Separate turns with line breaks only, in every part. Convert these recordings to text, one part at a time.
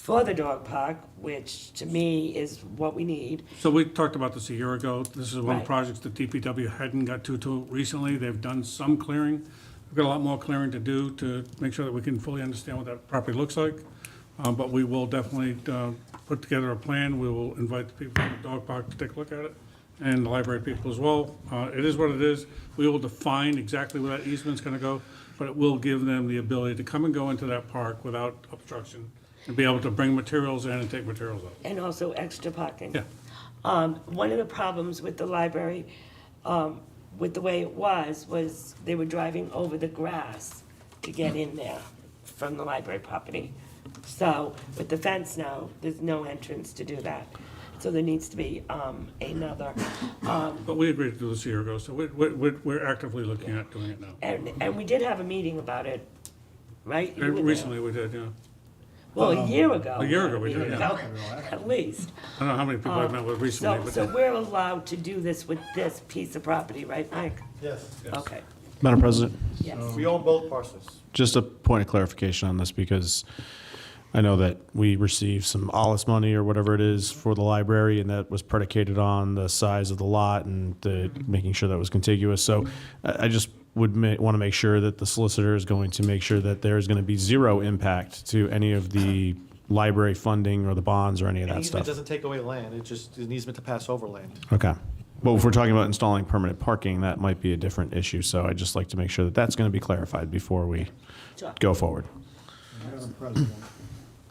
for the dog park, which to me is what we need.
So we talked about this a year ago. This is one of
Right.
the projects that DPW hadn't got to till recently. They've done some clearing. We've got a lot more clearing to do to make sure that we can fully understand what that property looks like. Uh, But we will definitely uh, put together a plan. We will invite the people from the dog park to take a look at it and the library people as well. Uh, It is what it is. We will define exactly where that easement's going to go, but it will give them the ability to come and go into that park without obstruction and be able to bring materials in and take materials out.
and also extra parking.
Yeah.
Um, one of the problems with the library, um, with the way it was, was they were driving over the grass to get in there from the library property. So with the fence now, there's no entrance to do that. So there needs to be, um, another, um,
But we agreed to do this a year ago, so we- we- we- we're actively looking at doing it now.
and, and we did have a meeting about it, right? You were there.
Recently, we did, yeah.
Well, a year ago.
A year ago we did,
meeting
yeah.
ago, At least.
I don't know how many people I've met with recently,
So, so
but
we're allowed to do this with this piece of property, right, Mike?
Yes.
Okay,
Madam President, Um,
yes.
We own both parcels.
just a point of clarification on this because I know that we received some Alice money or whatever it is for the library, and that was predicated on the size of the lot and the, making sure that was contiguous. So I, I just would ma- want to make sure that the solicitor is going to make sure that there is going to be zero impact to any of the library funding or the bonds or any of
An
that
easement
stuff.
doesn't take away land, it just, an easement to pass over land.
Okay. But if we're talking about installing permanent parking, that might be a different issue. So I'd just like to make sure that that's going to be clarified before we
Sure.
go forward.
Madam President,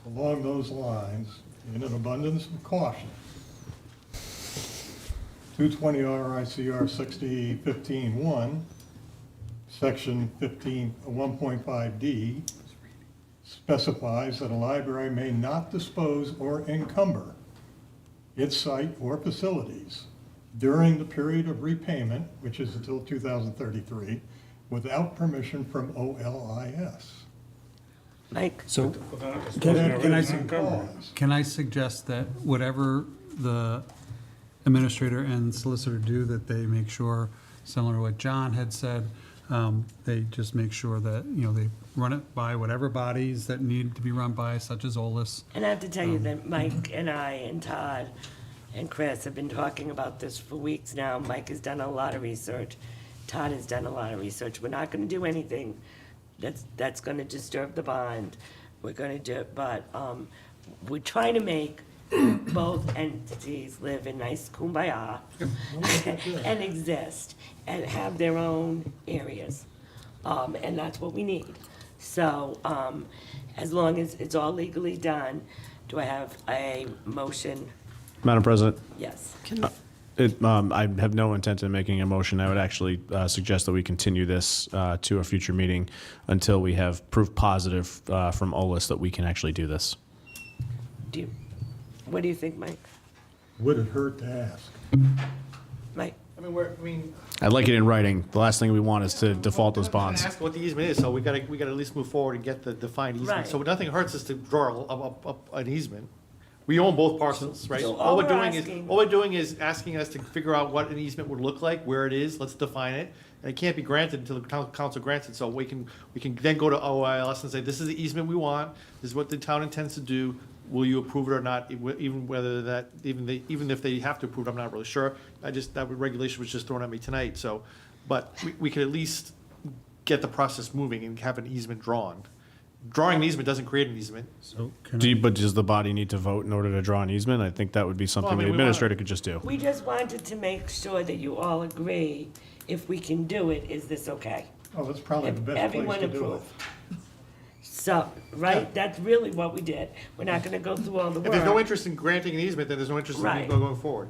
along those lines, in an abundance of caution, 220 RICR 6015-1, Section 15, 1.5D specifies that a library may not dispose or encumber its site or facilities during the period of repayment, which is until 2033, without permission from OLIS.
Mike,
So
Can
Can- can I s-
can I suggest that whatever the administrator and solicitor do, that they make sure, similar to what John had said, um, they just make sure that, you know, they run it by whatever bodies that need to be run by, such as OLS.
and I have to tell you that Mike and I and Todd and Chris have been talking about this for weeks now. Mike has done a lot of research. Todd has done a lot of research. We're not gonna do anything that's, that's gonna disturb the bond. We're gonna do, but, um, we're trying to make both entities live in nice kumbaya and exist and have their own areas. Um, and that's what we need. So, um, as long as it's all legally done, do I have a motion?
Madam President,
Yes.
it, um, I have no intent in making a motion. I would actually uh, suggest that we continue this uh, to a future meeting until we have proof positive uh, from OLIS that we can actually do this.
Do you, what do you think, Mike?
Would it hurt to ask?
Mike?
I mean, we're, I mean.
I'd like it in writing. The last thing we want is to default those
I'm gonna
bonds.
Ask what the easement is, so we gotta, we gotta at least move forward and get the defined easement.
Right.
So nothing hurts us to draw up, up, an easement. We own both parcels, right?
So all
All we're
we're
doing is,
asking-
all we're doing is asking us to figure out what an easement would look like, where it is, let's define it. And it can't be granted until the town council grants it, so we can, we can then go to OILS and say, this is the easement we want, this is what the town intends to do, will you approve it or not? It wi- Even whether that, even they, even if they have to approve, it, I'm not really sure. I just, that regulation was just thrown at me tonight, so, but we, we could at least get the process moving and have an easement drawn. Drawing an easement doesn't create an easement.
So can
Do
I,
you, but does the body need to vote in order to draw an easement? I think that would be something
mean, we
the
wanna-
administrator could just do.
We just wanted to make sure that you all agree, if we can do it, is this okay?
Oh, that's probably the best place
Everyone
to do it.
approved. So, right, that's really what we did. We're not gonna go through all the
If there's no
work.
interest in granting an easement, then there's no interest in
Right.
going forward.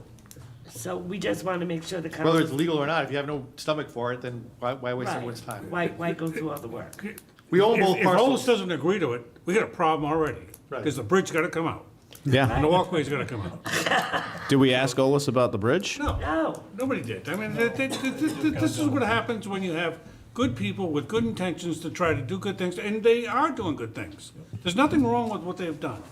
So we just wanna make sure the council.
Whether it's legal or not, if you have no stomach for it, then why, why waste
Right.
everyone's time?
Why, why go through all the work?
We own
if
both
if OLS
parcels.
doesn't agree to it, we got a problem already.
Right.
Because the bridge got to come out,
Yeah.
and the walkway's got to come out.
Did we ask OLIS about the bridge?
No,
No,
nobody did. I mean, th- th- th- th- th- this is what happens when you have good people with good intentions to try to do good things, and they are doing good things. There's nothing wrong with what they've done.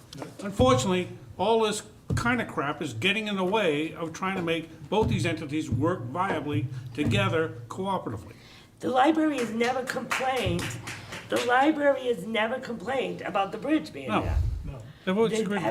Unfortunately, all this kind of crap is getting in the way of trying to make both these entities work viably together cooperatively.
the library has never complained, the library has never complained about the bridge being
No.
there.
They've always
They-
agreed.